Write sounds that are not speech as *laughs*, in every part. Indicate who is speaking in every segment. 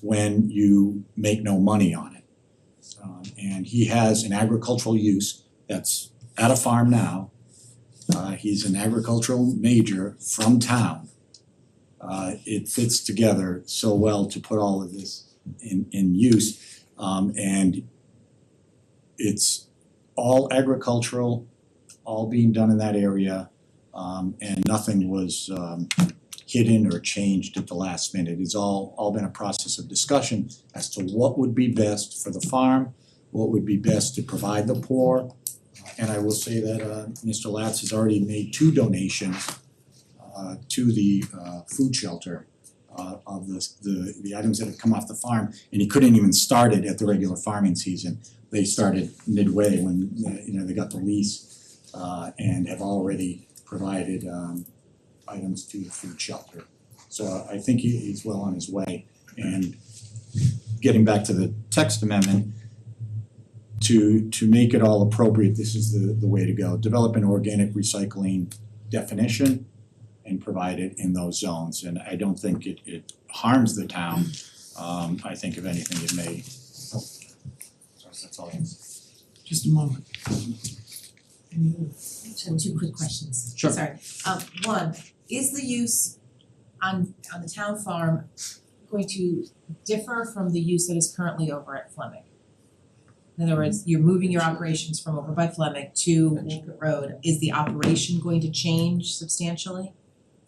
Speaker 1: when you make no money on it. Um, and he has an agricultural use that's at a farm now. Uh, he's an agricultural major from town. Uh, it fits together so well to put all of this in in use. Um, and it's all agricultural, all being done in that area. Um, and nothing was um hidden or changed at the last minute. It's all all been a process of discussion as to what would be best for the farm, what would be best to provide the poor. And I will say that uh Mr. Latz has already made two donations uh to the uh food shelter uh of the the the items that have come off the farm and he couldn't even start it at the regular farming season. They started midway when uh, you know they got the lease uh and have already provided um items to the food shelter. So I think he he's well on his way. And getting back to the text amendment, to to make it all appropriate, this is the the way to go. Develop an organic recycling definition and provide it in those zones. And I don't think it it harms the town. Um I think if anything, it may. oh, Sorry, that's all I have.
Speaker 2: Just a moment. Any other-
Speaker 3: I have two quick questions.
Speaker 1: Sure.
Speaker 3: Sorry. Um one, is the use on on the town farm going to differ from the use that is currently over at Fleming? In other words, you're moving your operations from over by Fleming to Wolcott Road. Is the operation going to change substantially?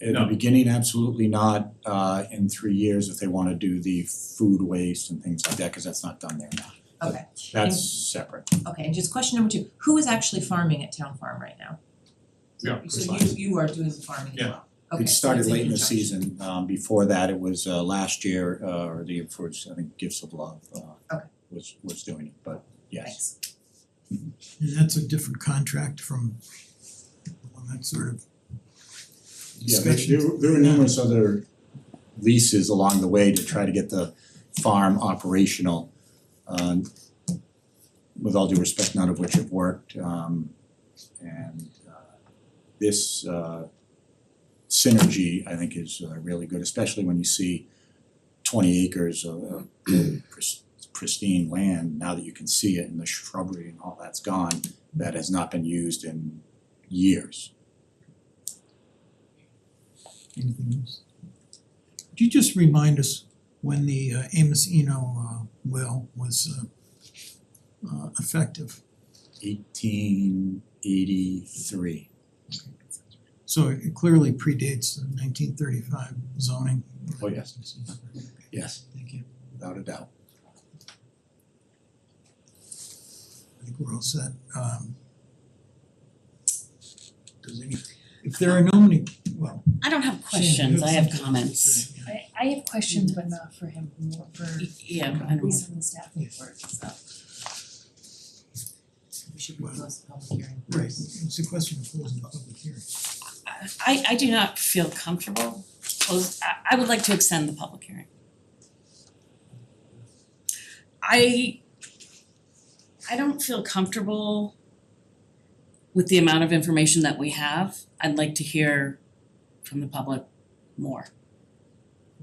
Speaker 1: At the
Speaker 4: No.
Speaker 1: beginning, absolutely not, uh in three years if they wanna do the food waste and things like that, cause that's not done there now.
Speaker 3: Okay.
Speaker 1: That's separate.
Speaker 3: Okay, and just question number two, who is actually farming at town farm right now?
Speaker 4: Yeah,
Speaker 3: So you you are doing the farming as
Speaker 4: Yeah.
Speaker 3: well? Okay,
Speaker 1: It
Speaker 3: so
Speaker 1: started
Speaker 3: it's an
Speaker 1: late in the
Speaker 3: injunction.
Speaker 1: season, um before that, it was uh last year, uh or the year before, it's, I think Gifts of Love uh
Speaker 3: Okay.
Speaker 1: was was doing it, but yes.
Speaker 3: Thanks.
Speaker 2: And that's a different contract from the one that sort of
Speaker 1: Yeah, there-
Speaker 2: discussion.
Speaker 1: there there were numerous other leases along the way to try to get the farm operational. Um with all due respect, none of which have worked, um and uh this uh synergy, I think, is uh really good, especially when you see twenty acres of of pris- pristine land, now that you can see it and the shrubbery and all that's gone, that has not been used in years.
Speaker 2: Anything else? Could you just remind us when the uh, Amos Eno uh, well was uh, uh, effective?
Speaker 1: eighteen eighty-three.
Speaker 2: So it clearly predates the nineteen thirty-five zoning.
Speaker 1: Oh, yes. Yes.
Speaker 2: Thank you.
Speaker 1: Without a doubt.
Speaker 2: I think we're all set. Um, Does any, if there are no many, well,
Speaker 5: I don't have
Speaker 2: Shannon, you
Speaker 5: questions, I have
Speaker 2: something to
Speaker 5: comments.
Speaker 2: say, yeah.
Speaker 6: I I have questions,
Speaker 3: Mm-hmm.
Speaker 6: but not for him, more for
Speaker 5: Yeah, I don't,
Speaker 6: Lisa and the staff report, so.
Speaker 3: We should close the public hearing.
Speaker 2: Right, it's a question of closing the public hearing.
Speaker 5: I I do not feel comfortable close, I I would like to extend the public hearing. I I don't feel comfortable with the amount of information that we have. I'd like to hear from the public more.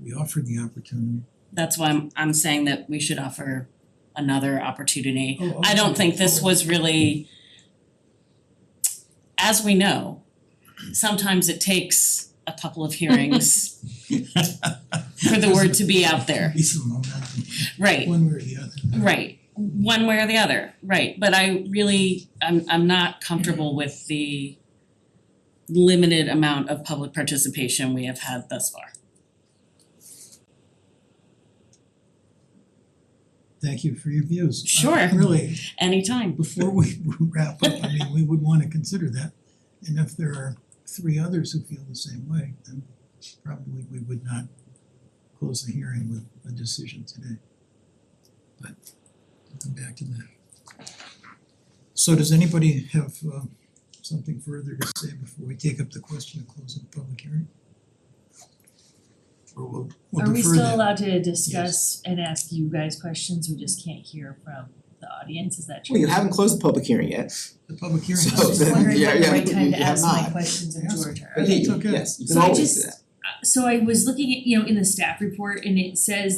Speaker 2: We offered the opportunity.
Speaker 5: That's why I'm I'm saying that we should offer another opportunity.
Speaker 2: Oh,
Speaker 5: I don't
Speaker 2: okay.
Speaker 5: think this
Speaker 2: Oh, *laughs*
Speaker 5: was really, as we know, sometimes it takes a couple of hearings for the word to be out there,
Speaker 2: Be some momentum,
Speaker 5: right,
Speaker 2: one way or the other.
Speaker 5: right, one way or the other, right, but I really, I'm I'm not comfortable with the limited amount of public participation we have had thus far.
Speaker 2: Thank you for your views. Uh,
Speaker 5: Sure.
Speaker 2: Really,
Speaker 5: Anytime,
Speaker 2: before we *laughs* wrap up, I mean, we would wanna consider that. And if there are three others who feel the same way, then probably we would not close the hearing with a decision today. But we'll come back to that. So does anybody have uh something further to say before we take up the question of closing the public hearing? Or we'll we'll
Speaker 6: Are we
Speaker 2: defer
Speaker 6: still
Speaker 2: that.
Speaker 6: allowed to discuss and ask you guys questions, we just can't hear from the audience, is that true?
Speaker 7: Well, you haven't closed the public hearing yet,
Speaker 2: The public hearing.
Speaker 7: So
Speaker 6: I was just wondering
Speaker 7: Yeah,
Speaker 6: what the
Speaker 7: yeah,
Speaker 6: right time
Speaker 7: you-
Speaker 6: to
Speaker 7: you have
Speaker 6: ask my
Speaker 7: not.
Speaker 6: questions of
Speaker 2: Ask.
Speaker 6: George are.
Speaker 7: but hey,
Speaker 2: It's okay.
Speaker 7: yes, you can
Speaker 6: So I
Speaker 7: always do that.
Speaker 6: just, so I was looking at, you know, in the staff report and it says